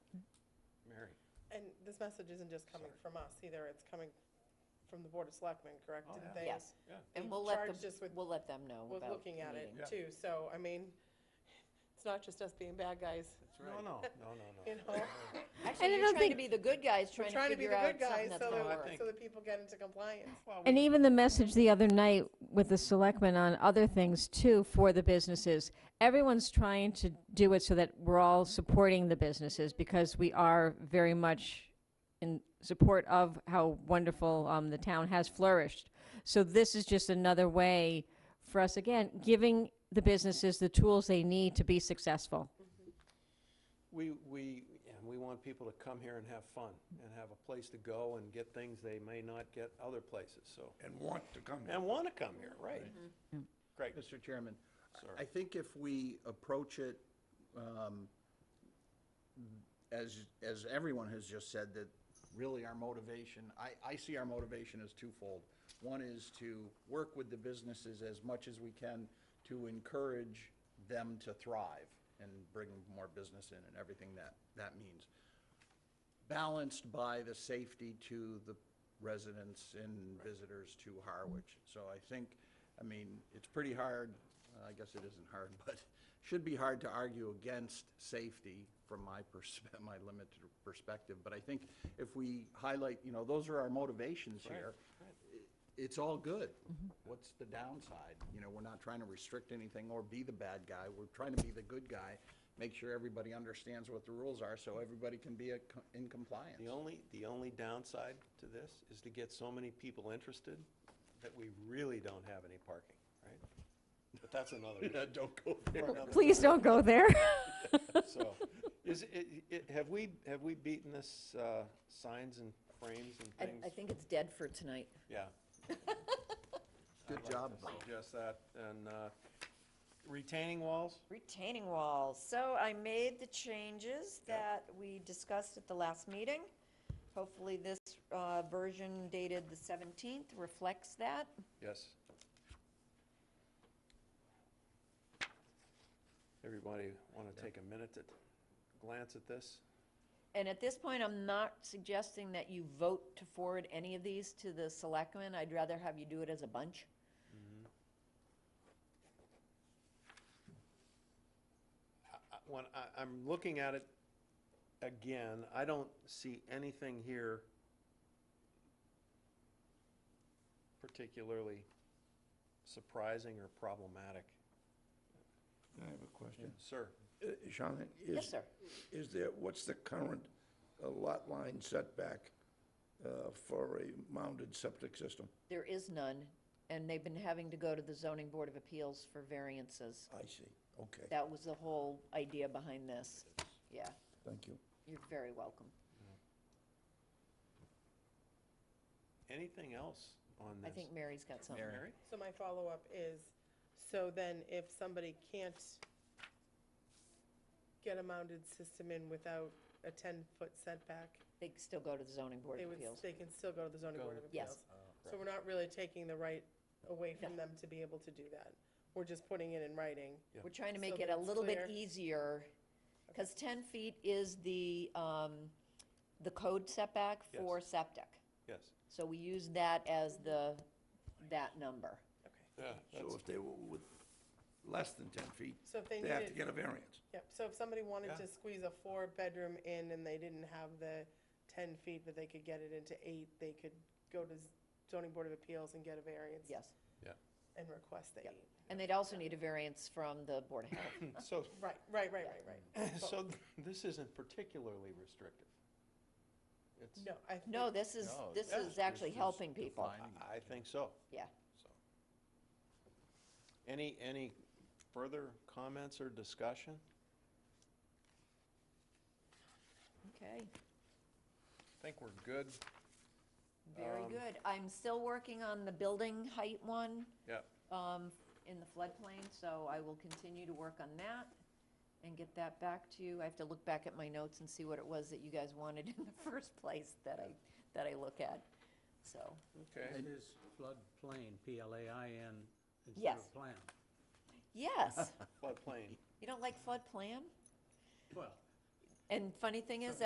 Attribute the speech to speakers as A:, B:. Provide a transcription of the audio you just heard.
A: this message isn't just coming from us either, it's coming from the Board of Selectmen, correct?
B: Oh,
A: Didn't
B: yeah.
A: they-
C: Yes,
B: Yeah.
A: They
C: and we'll let
A: charged us
C: them,
A: with-
C: we'll let them know
A: Was
C: about the
A: looking at it
C: meeting.
B: Yeah.
A: too, so, I mean, it's not just us being bad guys,
B: No, no, no, no,
A: you
B: no.
A: know?
C: Actually,
D: I
C: you're
D: don't
C: trying to
D: think-
C: be the good guys,
A: We're
C: trying to
A: trying to be the
C: figure out
A: good
C: something
A: guys
C: that's
A: so
C: gonna
B: I
C: work.
A: that,
B: think-
A: so that people get into compliance.
B: Well,
D: And even the message the other night with the selectmen on other things too for the businesses, everyone's trying to do it so that we're all supporting the businesses because we are very much in support of how wonderful um, the town has flourished. So this is just another way for us, again, giving the businesses the tools they need to be successful.
B: We, we, and we want people to come here and have fun and have a place to go and get things they may not get other places, so.
E: and want to come here.
B: And want to come here, right? Great.
F: Mr. Chairman, I-
B: Sir.
F: I think if we approach it, um, as, as everyone has just said, that really our motivation, I, I see our motivation as twofold. One is to work with the businesses as much as we can to encourage them to thrive and bring more business in and everything that, that means balanced by the safety to the residents and visitors to Harwich. So I think, I mean, it's pretty hard, uh, I guess it isn't hard, but should be hard to argue against safety from my persp, my limited perspective. But I think if we highlight, you know, those are our motivations here. i- It's all good. What's the downside? You know, we're not trying to restrict anything or be the bad guy. We're trying to be the good guy make sure everybody understands what the rules are, so everybody can be a co- in compliance.
B: The only, the only downside to this is to get so many people interested that we really don't have any parking, right? But that's another issue. Don't go there.
D: Please don't go there.
B: So, is, it, it, have we, have we beaten this, uh, signs and frames
C: I,
B: and things?
C: I think it's dead for tonight.
B: Yeah.
F: Good job, Bob.
B: Suggest that, and, uh, retaining walls?
C: Retaining walls, so I made the changes that we discussed at the last meeting. Hopefully this, uh, version dated the seventeenth reflects that.
B: Yes. Everybody want to take a minute to glance at this?
C: And at this point, I'm not suggesting that you vote to forward any of these to the selectmen. I'd rather have you do it as a bunch.
B: I- When I, I'm looking at it again, I don't see anything here particularly surprising or problematic.
E: I have a question.
B: Sir?
E: Uh, Sean, is.
C: Yes, sir.
E: Is there, what's the current uh, lot line setback uh, for a mounded septic system?
C: There is none, and they've been having to go to the zoning board of appeals for variances.
E: I see, okay,
C: That was the whole idea behind this. Yeah,
E: thank you.
C: you're very welcome.
B: Anything else on
C: I
B: this?
C: think Mary's got something.
F: Mary.
B: Mary?
A: So my follow-up is, so then if somebody can't get a mounted system in without a ten-foot setback,
C: They can still go to the zoning board
A: they
C: of
A: would,
C: appeals.
A: they can still go to the zoning
B: Go
A: board
B: to
A: of
C: the- Yes.
A: appeals. So we're not really taking the right away from them to be able to do that. We're just putting it in writing.
C: We're trying to
A: So
C: make
A: that
C: it a
A: it's
C: little bit
A: clear.
C: easier, because 10 feet is the, um, the code setback
B: Yes.
C: for septic.
B: Yes.
C: So we use that as the, that number.
B: Yeah.
E: So if they were with less than 10 feet,
A: So if they
E: they have to
A: needed,
E: get a variance.
A: yep, so if somebody wanted
B: Yeah.
A: to squeeze a four-bedroom in and they didn't have the ten feet, but they could get it into eight, they could go to zoning board of appeals and get a variance.
C: Yes.
A: And request the eight.
C: And they'd also need a variance from the Board of Health.
B: So,
A: Right, right, right, right, right.
B: so this isn't particularly restrictive. It's-
A: No, I.
C: No, this is,
F: No,
C: this
B: yeah,
C: is actually helping people.
F: defining.
B: I- I think so.
C: Yeah.
B: So, Any, any further comments or discussion?
C: Okay,
B: I think we're good.
C: very
B: Um,
C: good. I'm still working on the building height one
B: Yeah,
C: um, in the floodplain, so I will continue to work on that and get that back to you. I have to look back at my notes and see what it was that you guys wanted in the first place that I, that I look at, so.
B: okay.
G: It is floodplain, P-L-A-I-N, instead
C: Yes.
G: of plan.
C: Yes,
B: Floodplain.
C: you don't like floodplain?
G: Well,
C: And funny thing is,